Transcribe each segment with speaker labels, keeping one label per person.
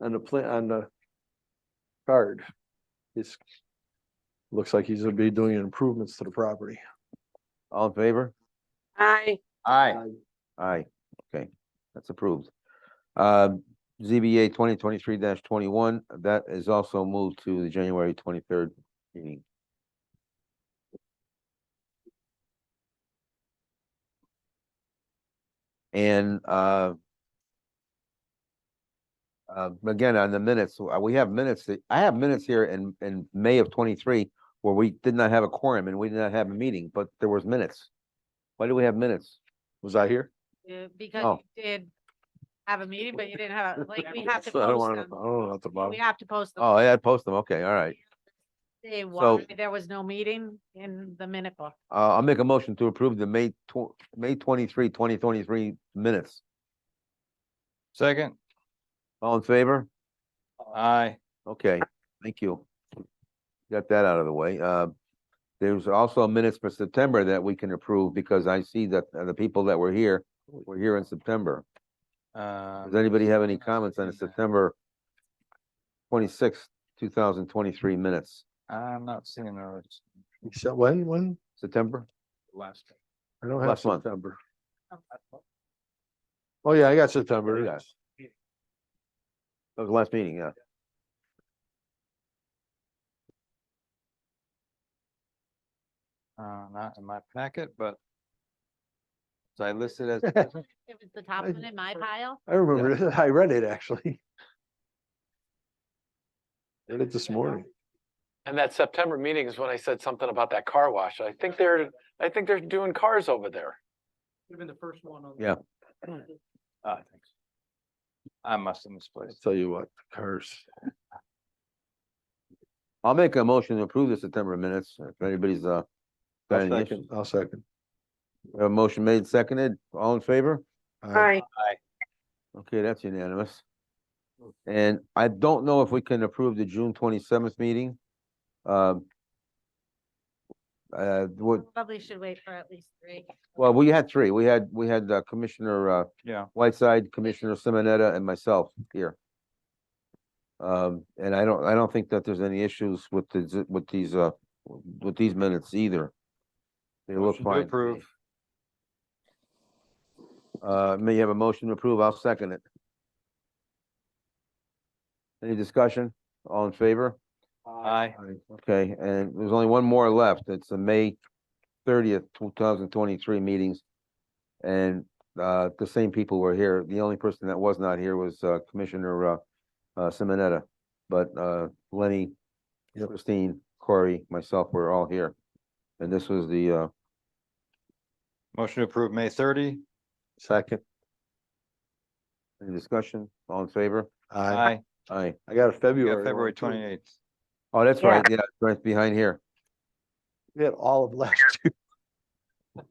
Speaker 1: on the plan, on the card. It's, looks like he's gonna be doing improvements to the property.
Speaker 2: All in favor?
Speaker 3: Aye.
Speaker 4: Aye.
Speaker 2: Aye, okay, that's approved. Um, ZBA twenty twenty-three twenty-one, that is also moved to the January twenty-third meeting. And, uh, uh, again, on the minutes, uh, we have minutes, that- I have minutes here in, in May of twenty-three where we did not have a quorum and we did not have a meeting, but there was minutes. Why do we have minutes?
Speaker 1: Was I here?
Speaker 5: Yeah, because
Speaker 2: Oh.
Speaker 5: you did have a meeting, but you didn't have, a- like, we have to
Speaker 1: So I don't
Speaker 5: post
Speaker 1: wanna- I
Speaker 5: them.
Speaker 1: don't know about the
Speaker 5: We
Speaker 1: bottom.
Speaker 5: have to post them.
Speaker 2: Oh, I had post them, okay, all right.
Speaker 5: Say
Speaker 2: so-
Speaker 5: why there was no meeting in the minute book.
Speaker 2: Uh, I'll make a motion to approve the May tw- May twenty-three, twenty twenty-three minutes.
Speaker 4: Second.
Speaker 2: All in favor?
Speaker 4: Aye.
Speaker 2: Okay, thank you. Got that out of the way. Uh, there's also minutes for September that we can approve because I see that uh, the people that were here were here in September. Does
Speaker 4: Does
Speaker 2: anybody have any comments on the September twenty-sixth, two thousand twenty-three minutes?
Speaker 4: I'm not seeing those.
Speaker 1: Except when, when?
Speaker 2: September?
Speaker 4: Last.
Speaker 1: I don't have
Speaker 2: Last month.
Speaker 1: September. Oh, yeah, I got September.
Speaker 2: Yeah. That was the last meeting, yeah.
Speaker 4: Uh, not in my packet, but so I listed as,
Speaker 5: It was the top
Speaker 1: I-
Speaker 5: one in my pile.
Speaker 1: I remember, this. I read it actually. Read it this morning.
Speaker 6: And that September meeting is when I said something about that car wash. I think they're, I think they're doing cars over there.
Speaker 2: Yeah.
Speaker 4: ah, thanks. I must have
Speaker 1: I'll
Speaker 4: misplaced.
Speaker 1: tell you what, the cars.
Speaker 2: I'll make a motion to approve the September minutes, if anybody's, uh.
Speaker 1: I'll
Speaker 2: got any issues.
Speaker 1: second, I'll second.
Speaker 2: A motion made, seconded, all in favor?
Speaker 1: Aye.
Speaker 3: Aye.
Speaker 2: Okay, that's unanimous. And I don't know if we can approve the June twenty-seventh meeting. Um. Uh, what,
Speaker 5: Probably should wait for at least three.
Speaker 2: well, we had three, we had, we had uh, Commissioner, uh,
Speaker 4: Yeah,
Speaker 2: Whiteside, Commissioner Simonetta, and myself here. Um, and I don't, I don't think that there's any issues with the, z- with these, uh, with these minutes either. They look
Speaker 4: motion to
Speaker 2: fine. to me.
Speaker 4: approve.
Speaker 2: Uh, may you have a motion to approve? I'll second it. Any discussion? All in favor?
Speaker 4: Aye.
Speaker 2: Okay, and there's only one more left. It's the May thirtieth, two thousand twenty-three meetings. And, uh, the same people were here. The only person that was not here was, uh, Commissioner, uh, uh, Simonetta. But, uh, Lenny,
Speaker 1: Yep.
Speaker 2: Christine, Corey, myself, we're all here. And this was the, uh,
Speaker 4: Motion to approve May thirty.
Speaker 1: Second,
Speaker 2: any discussion, all in favor?
Speaker 1: aye.
Speaker 4: Aye.
Speaker 2: Aye.
Speaker 1: I got a
Speaker 4: We
Speaker 1: February.
Speaker 4: got
Speaker 1: one,
Speaker 4: February
Speaker 1: too.
Speaker 4: twenty-eighth.
Speaker 2: Oh, that's
Speaker 3: Yeah.
Speaker 2: right, yeah, right behind here.
Speaker 1: We had all of last year.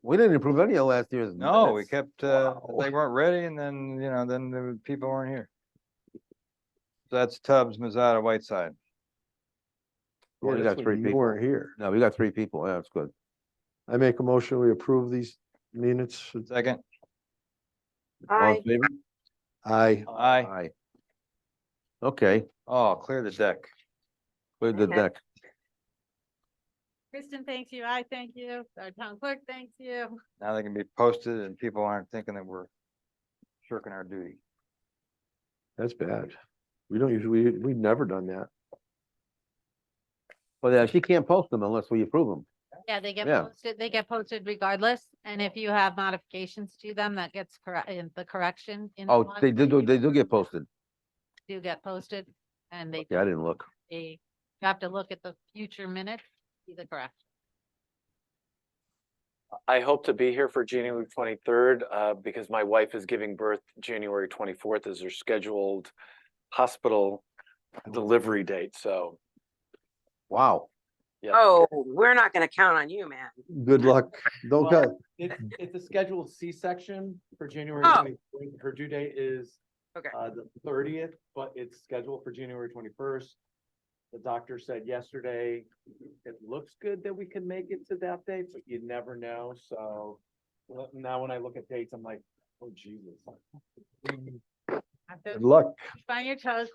Speaker 2: We didn't approve any of last year's.
Speaker 4: No, we
Speaker 2: minutes.
Speaker 4: kept, uh,
Speaker 1: Wow.
Speaker 4: they weren't ready and then, you know, then the people weren't here. So That's Tubbs, Mizada, Whiteside.
Speaker 2: Well,
Speaker 1: Yeah,
Speaker 2: you
Speaker 1: that's
Speaker 2: got
Speaker 1: when
Speaker 2: three
Speaker 1: you
Speaker 2: people.
Speaker 1: Weren't here.
Speaker 2: No, we got three people, yeah, that's good.
Speaker 1: I make a motion, we approve these minutes.
Speaker 4: Second,
Speaker 2: All
Speaker 3: Aye.
Speaker 2: in favor?
Speaker 1: Aye.
Speaker 4: aye.
Speaker 2: Aye. Okay,
Speaker 4: Oh, clear the deck.
Speaker 2: clear the
Speaker 3: Okay.
Speaker 2: deck.
Speaker 5: Kristen thanks you. I thank you. Our town clerk thanks you.
Speaker 4: Now they can be posted and people aren't thinking that we're shirking our duty.
Speaker 1: That's bad. We don't usually, we, we've never done that.
Speaker 2: Well, yeah, she can't post them unless we approve them.
Speaker 5: Yeah, they get
Speaker 2: Yeah.
Speaker 5: posted, they get posted regardless. And if you have modifications to them, that gets correct, the correction. in the
Speaker 2: Oh,
Speaker 5: one
Speaker 2: they
Speaker 5: that
Speaker 2: did,
Speaker 5: you
Speaker 2: do- they do get posted.
Speaker 5: Do get posted and they,
Speaker 2: Yeah, I didn't look.
Speaker 5: they you have to look at the future minutes, see the correct.
Speaker 6: I hope to be here for January twenty-third, uh, because my wife is giving birth January twenty-fourth is her scheduled hospital delivery date, so,
Speaker 2: Wow.
Speaker 6: yeah.
Speaker 3: Oh, we're not gonna count on you, man.
Speaker 1: Good luck. Don't
Speaker 7: Well,
Speaker 1: cut.
Speaker 7: It's, it's a scheduled C-section for January
Speaker 3: Oh.
Speaker 7: twenty-fourth. Her due date is
Speaker 3: Okay.
Speaker 7: uh, the thirtieth, but it's scheduled for January twenty-first. The doctor said yesterday, it looks good that we can make it to that date, but you never know, so. well, Now, when I look at dates, I'm like, oh Jesus.
Speaker 3: Mm-hmm.
Speaker 5: You have to
Speaker 1: Good luck.
Speaker 5: Find your toes,